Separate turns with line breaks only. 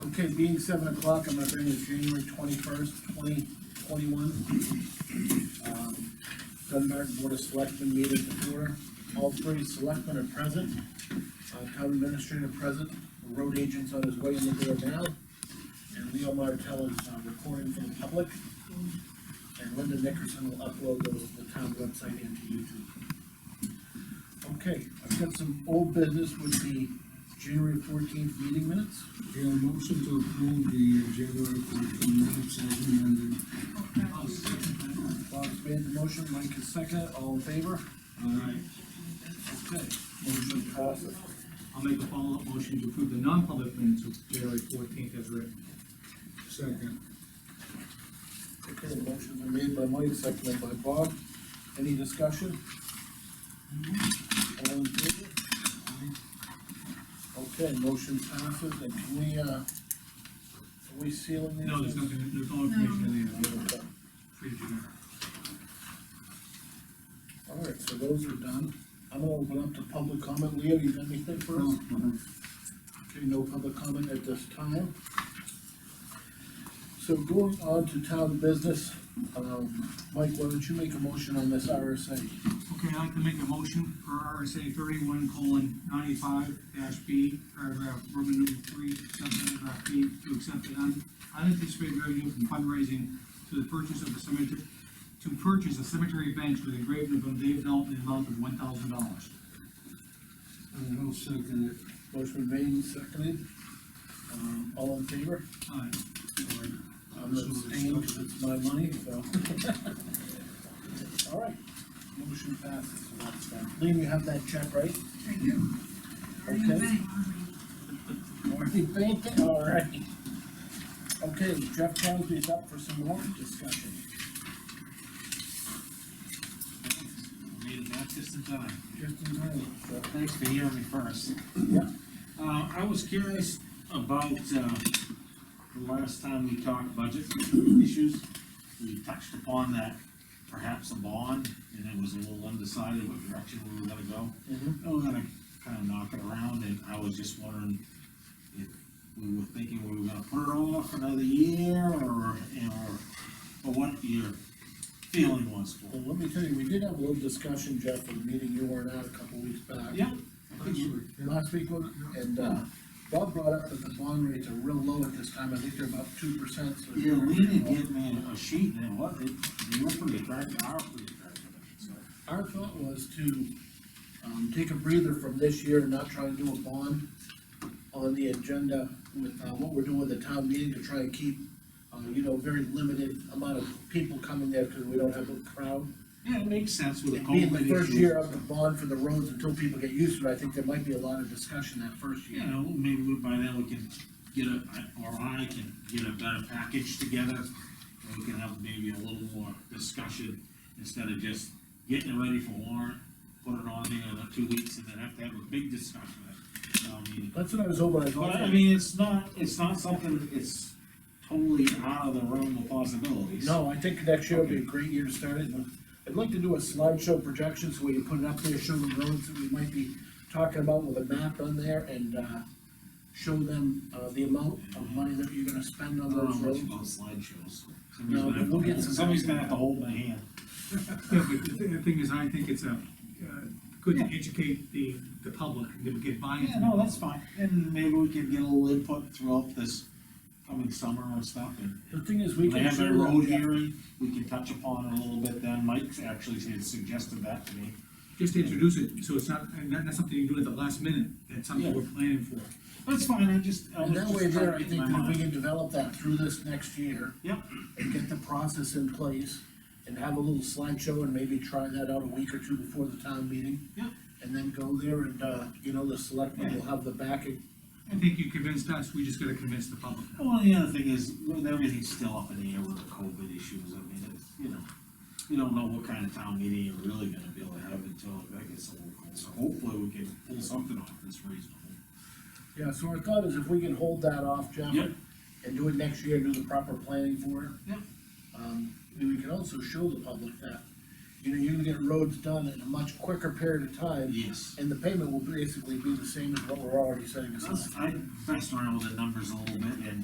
Okay, being seven o'clock, I'm gonna bring you January twenty-first, twenty twenty-one. Dunbarton Board of Selectmen meeting to order. All three selectmen are present. Uh, town administrator present, The road agent's on his way in the door now. And Leo Martell is uh, recording for the public. And Linda Nickerson will upload those to the town website and to YouTube. Okay, I've got some old business with the January fourteenth meeting minutes.
Yeah, motion to approve the uh, January fourteen minutes as amended.
Bob's made the motion, Mike is second, all in favor?
Alright,
Okay, motion passes.
I'll make a follow-up motion to approve the non-public minutes of January fourteenth as written.
Second.
Okay, motion been made by Mike, seconded by Bob. Any discussion? Mm-hmm. All in favor? Okay, motion passes, and can we, uh, are we sealing these?
No, there's nothing, there's no information in there, free to do.
All right, so those are done. I'm gonna open up to public comment. Leo, you got anything for us? Okay, no public comment at this time. So going on to town business, um, Mike, why don't you make a motion on this RSA?
Okay, I'd like to make a motion for RSA thirty-one colon ninety-five dash B, paragraph Roman numeral three, subparagraph B, to accept an un- unanticipated revenue from fundraising to the purchase of the cemetery, to purchase a cemetery bench with engraving of Dave Dalton in the amount of one thousand dollars.
And I'll second it.
Motion made and seconded. Um, all in favor?
Alright,
I'm abstaining 'cause it's my money, so. All right, motion passes, so that's done. Liam, you have that check, right?
I do. Already in the
Okay.
bank.
Already banking, all right. Okay, Jeff Crosby's up for some warrant discussion.
Made it back just in time.
Just in time, so,
Thanks for hearing me first.
yeah.
Uh, I was curious about, uh, the last time we talked budget issues. We touched upon that perhaps a bond, and it was a little undecided what direction we were gonna go.
Mhm.
And we're gonna kind of knock it around, and I was just wondering if we were thinking we were gonna put it off another year, or, or, or what your feeling was for
Well,
it.
let me tell you, we did have a little discussion, Jeff, in the meeting you weren't at a couple weeks back.
Yeah, I think
That's
you-
right, yeah.
Last week, wasn't it? and, uh, Bob brought up that the bond rates are real low at this time, I think they're about two percent, so.
Yeah, we didn't give me a sheet, and what, it, you were pretty attractive, I was pretty attractive, so.
Our thought was to, um, take a breather from this year and not try to do a bond on the agenda with, uh, what we're doing with the town meeting to try and keep, uh, you know, very limited amount of people coming there because we don't have a crowd.
Yeah, it makes sense with the COVID.
Being the first
issue.
year of the bond for the roads until people get used to it, I think there might be a lot of discussion that first
You
year.
know, maybe we- by then we can get a, I- or I can get a better package together, and we can have maybe a little more discussion, instead of just getting it ready for warrant, put it on there in two weeks, and then have to have a big discussion at town meeting.
That's what I was hoping, I was
But I
hoping.
mean, it's not, it's not something, it's totally out of the realm of possibilities.
No, I think next year will be a great year to start it, and I'd like to do a slideshow projection, so we can put it up there, show the roads that we might be talking about with a map on there, and, uh, show them, uh, the amount of money that you're gonna spend
I
on
don't know
those
much
roads.
about slideshows.
No, but we'll get some-
Somebody's gonna have to hold my hand.
Yeah, but the thing- the thing is, I think it's a, uh, good to educate the, the public, and to get buy-in.
Yeah, no, that's fine, and maybe we can get a little input throughout this coming summer and stuff, and
The thing is, we
when
can.
they have
show
their
them
road
that-
hearing, we can touch upon it a little bit then, Mike's actually had suggested that to me.
Just to introduce it, so it's not, and that- that's something you do at the last minute, that's something
Yeah.
we're planning for.
That's fine, I just, I
And
was
that
just
way there,
trying
I
to get my
think that we
mind.
can develop that through this next year.
Yep.
And get the process in place, and have a little slideshow, and maybe try that out a week or two before the town meeting.
Yep.
And then go there, and, uh, you know, the selectmen will have the backing
I think you convinced us, we just gotta convince the public.
Well, the other thing is, with everything still up in the air with the COVID issues, I mean, it's, you know, you don't know what kind of town meeting you're really gonna be able to have until that gets a little cold, so hopefully we can pull something off that's reasonable.
Yeah, so our thought is if we can hold that off, Jeff.
Yep.
And do it next year, do the proper planning for it.
Yep.
Um, and we can also show the public that, you know, you can get roads done in a much quicker period of time.
Yes.
And the payment will basically be the same as what we're already setting aside.
I messed around with the numbers a little bit and